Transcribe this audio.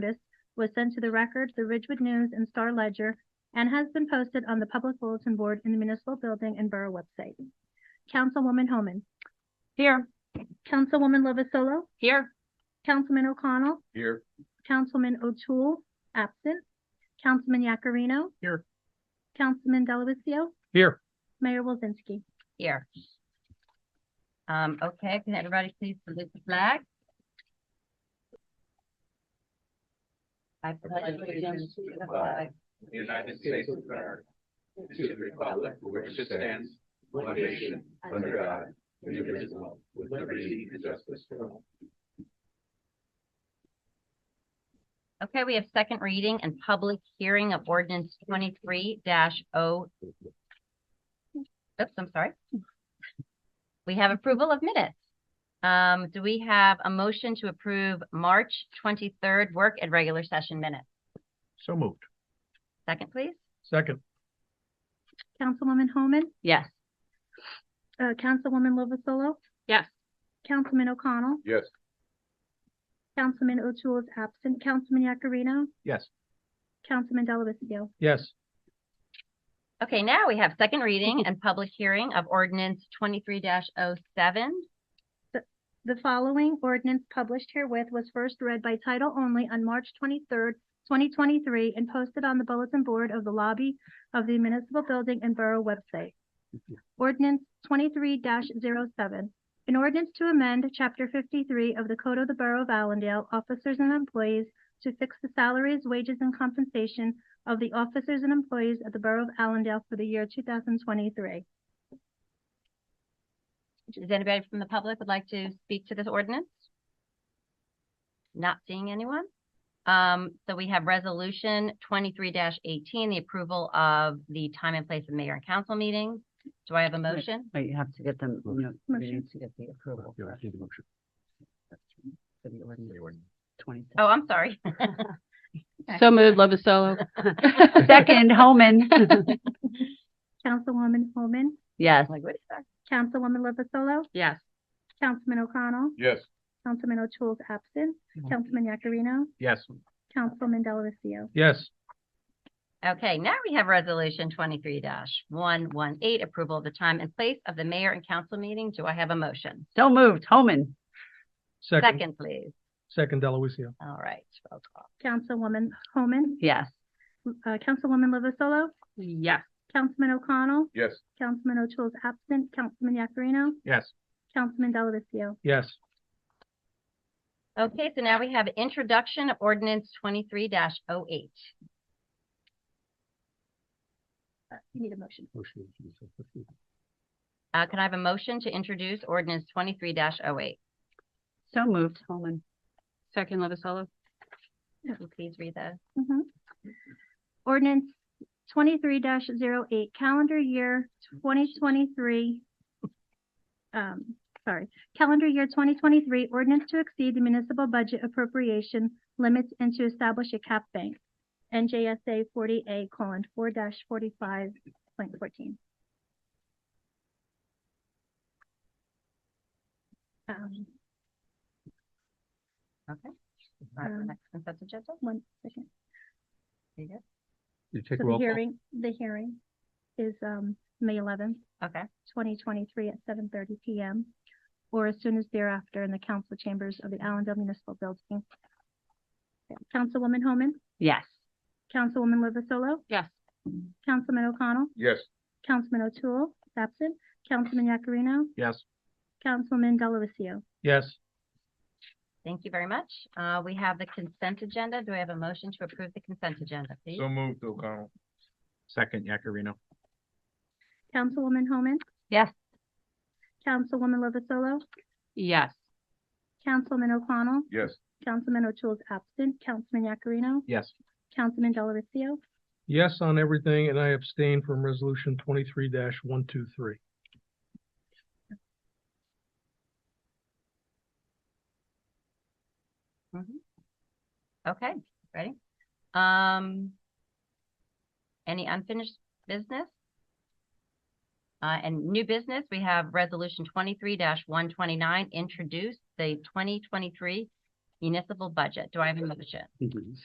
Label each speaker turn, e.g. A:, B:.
A: notice was sent to the record, the Ridgewood News and Star Ledger, and has been posted on the public bulletin board in the municipal building and borough website. Councilwoman Homan,
B: Here.
A: Councilwoman Lovasolo,
B: Here.
A: Councilman O'Connell,
C: Here.
A: Councilman O'Toole, absent. Councilman Yakarino.
C: Here.
A: Councilman Delavatio,
C: Here.
A: Mayor Wolzinski.
B: Here. Um, okay, can everybody please salute the flag? I pledge allegiance to the flag
C: The United States of America. To the republic for which it stands, one nation, under God, indivisible, with liberty and justice for all.
B: Okay, we have second reading and public hearing of ordinance twenty-three dash oh. Oops, I'm sorry. We have approval of minutes. Um, do we have a motion to approve March twenty-third work and regular session minutes?
C: So moved.
B: Second, please?
C: Second.
A: Councilwoman Homan,
B: Yes.
A: uh, Councilwoman Lovasolo,
B: Yes.
A: Councilman O'Connell,
C: Yes.
A: Councilman O'Toole is absent. Councilman Yakarino,
C: Yes.
A: Councilman Delavatio.
C: Yes.
B: Okay, now we have second reading and public hearing of ordinance twenty-three dash oh seven.
A: The following ordinance published herewith was first read by title only on March twenty-third, twenty twenty-three, and posted on the bulletin board of the lobby of the municipal building and borough website. Ordinance twenty-three 7 An ordinance to amend chapter fifty-three of the Code of the Borough of Allendale, officers and employees to fix the salaries, wages, and compensation of the officers and employees of the Borough of Allendale for the year two thousand twenty-three.
B: Does anybody from the public would like to speak to this ordinance? Not seeing anyone. Um, so we have resolution twenty-three eighteen, the approval of the time and place of mayor and council meetings. Do I have a motion?
D: But you have to get them, you know, you
A: Motion.
D: need to get the approval for for the ordinance twenty.
B: Oh, I'm sorry.
E: So moved, Lovasolo.
D: Second, Holman.
A: Councilwoman Holman,
D: Yes.
B: Like, what is that?
A: Councilwoman Lovasolo,
B: Yes.
A: Councilman O'Connell,
C: Yes.
A: Councilman O'Toole's absent. Councilman Yakarino,
C: Yes.
A: Councilman Delavatio.
C: Yes.
B: Okay, now we have resolution twenty-three one one eight, approval of the time and place of the mayor and council meeting. Do I have a motion?
D: So moved, Holman.
B: Second, please.
C: Second, Delawicio.
B: All right. roll call.
A: Councilwoman Homan,
D: Yes.
A: uh, Councilwoman Lovasolo,
D: Yes.
A: Councilman O'Connell,
C: Yes.
A: Councilman O'Toole's absent, Councilman Yakarino,
C: Yes.
A: Councilman Delavatio.
C: Yes.
B: Okay, so now we have introduction of ordinance twenty-three oh 8
A: Uh, You need a motion.
B: Uh, can I have a motion to introduce ordinance twenty-three oh 8
D: So moved, Holman.
E: Second, Lovasolo.
B: Can you please read those?
A: Mhm. Ordinance twenty-three 8 calendar year twenty twenty-three. Um, sorry, calendar year twenty twenty-three ordinance to exceed the municipal budget appropriation limits and to establish a cap bank. NJSA forty A colon four forty-five point fourteen. Um,
B: All right,
A: Um,
B: next consent agenda.
A: one second.
B: There you
C: You
A: So the hearing, the hearing is, um, May eleventh.
B: go. Okay,
A: twenty twenty-three at seven thirty PM or as soon as thereafter in the council chambers of the Allendale Municipal Building. Councilwoman Homan,
D: Yes.
A: Councilwoman Lovasolo,
E: Yes.
A: Councilman O'Connell,
C: Yes.
A: Councilman O'Toole, absent, Councilman Yakarino,
C: Yes.
A: Councilman Delavatio.
C: Yes.
B: thank you very much. Uh, we have the consent agenda. Do I have a motion to approve the consent agenda, please?
C: moved, O'Connell. Second, Yakarino.
A: Councilwoman Homan.
B: Yes.
A: Councilwoman Lovasolo,
E: Yes.
A: Councilman O'Connell,
C: Yes.
A: Councilman O'Toole is absent, Councilman Yakarino,
C: Yes.
A: Councilman Delavatio.
F: Yes on everything, and I abstain from resolution twenty-three one, two, three.
B: Okay, ready? Um, any unfinished business? Uh, and new business, we have resolution twenty-three one twenty-nine, introduce the twenty twenty-three municipal budget. Do I have a motion?